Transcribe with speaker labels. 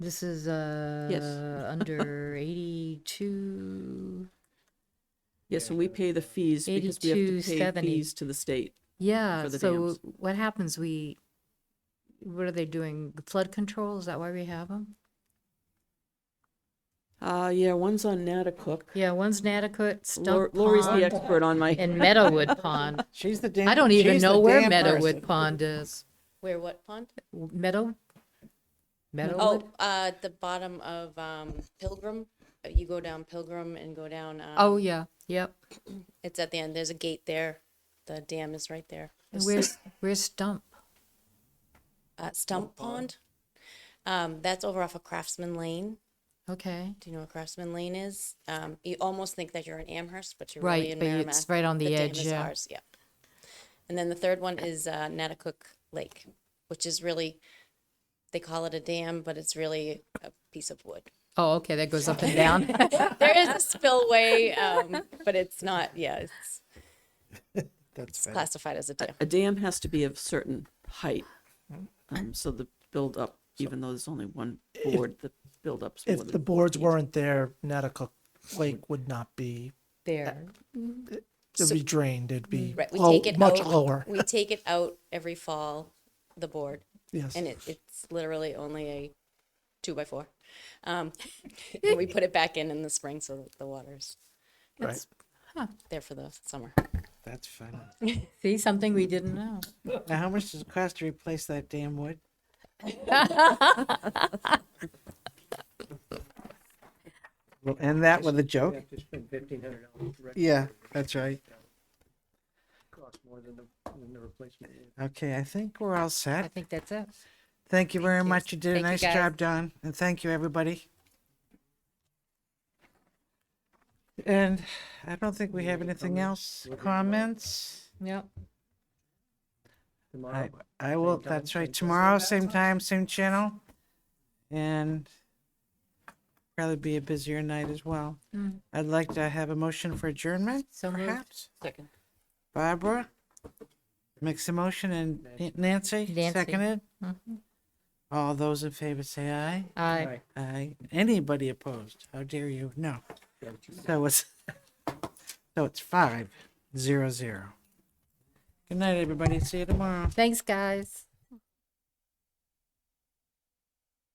Speaker 1: This is uh under 82
Speaker 2: Yes, and we pay the fees because we have to pay
Speaker 1: 82.70.
Speaker 2: fees to the state.
Speaker 1: Yeah,
Speaker 2: for the
Speaker 1: so
Speaker 2: dams.
Speaker 1: what happens we what are they doing? Flood control is that why we have them?
Speaker 2: Uh, yeah, one's on Natticook.
Speaker 1: Yeah, one's inadequate,
Speaker 2: Lor-
Speaker 1: Stump
Speaker 2: Lori's
Speaker 1: Pond
Speaker 2: the expert on my,
Speaker 1: and Meadowwood Pond.
Speaker 3: She's the damn.
Speaker 1: I don't even
Speaker 3: she's
Speaker 1: know
Speaker 3: the
Speaker 1: where
Speaker 3: damn
Speaker 1: Meadowwood
Speaker 3: person.
Speaker 1: Pond is. Where what pond? Meadow Meadowwood.
Speaker 4: Oh, uh, at the bottom of um, Pilgrim. Uh, You go down Pilgrim and go down. Um,
Speaker 1: Oh yeah, yep.
Speaker 4: It's at the end. There's a gate there. The dam is right there.
Speaker 1: And where's where's Stump?
Speaker 4: Uh, Stump Pond. Um, that's over off of Craftsman Lane.
Speaker 1: Okay,
Speaker 4: Do you know what Craftsman Lane is? Um, you almost think that you're in Amherst, but you're
Speaker 1: Right,
Speaker 4: really in
Speaker 1: but you-
Speaker 4: Merrimack.
Speaker 1: it's right on the
Speaker 4: dam
Speaker 1: edge,
Speaker 4: is
Speaker 1: yeah.
Speaker 4: ours, yeah. And then the third one is uh, Natticook Lake, which is really they call it a dam, but it's really a piece of wood.
Speaker 1: oh okay, that goes up and down.
Speaker 4: there is a spillway, um, but it's not. Yeah, it's
Speaker 3: That's bad.
Speaker 4: classified as a dam.
Speaker 2: a dam has to be of certain height. Um, so the buildup, even though there's only one board, the buildup's more
Speaker 5: If the
Speaker 2: than,
Speaker 5: boards weren't there, Natticook Lake would not be,
Speaker 1: there.
Speaker 5: it would be drained, it'd be
Speaker 4: Right, we
Speaker 5: low-
Speaker 4: take it
Speaker 5: Oh, much
Speaker 4: out,
Speaker 5: lower.
Speaker 4: We take it out every fall, the board,
Speaker 5: Yes,
Speaker 4: and it, it's literally only a two by four. Um, and we put it back in in the spring so that the water's
Speaker 5: right.
Speaker 4: there for the summer.
Speaker 3: That's funny.
Speaker 1: See something we didn't know.
Speaker 3: Now, how much does it cost to replace that damn wood? We'll end that with a joke.
Speaker 6: Just spend fifteen hundred dollars direct
Speaker 3: Yeah, that's right.
Speaker 6: cost more than the, than the replacement.
Speaker 3: Okay, I think we're all
Speaker 1: I
Speaker 3: set.
Speaker 1: think that's it.
Speaker 3: Thank you very much. You did a
Speaker 1: Thank you,
Speaker 3: nice
Speaker 1: guys.
Speaker 3: job, Don, and thank you, everybody. And I don't think we have anything else. Comments?
Speaker 1: Yep.
Speaker 6: Tomorrow,
Speaker 3: I, I will,
Speaker 6: time,
Speaker 3: that's
Speaker 6: same
Speaker 3: right,
Speaker 6: time.
Speaker 3: tomorrow, same time, same channel. And probably be a busier night as well. I'd like to have a motion for adjournment,
Speaker 1: Mm. So moved.
Speaker 3: perhaps?
Speaker 4: Second.
Speaker 3: Barbara makes a motion and N- Nancy
Speaker 1: Nancy. Mm-hmm.
Speaker 3: seconded. All those in favor say aye.
Speaker 1: I.
Speaker 3: Aye. Anybody opposed? How dare you? No. So it's, so it's five, zero, zero. Good night, everybody. See you tomorrow.
Speaker 1: Thanks, guys.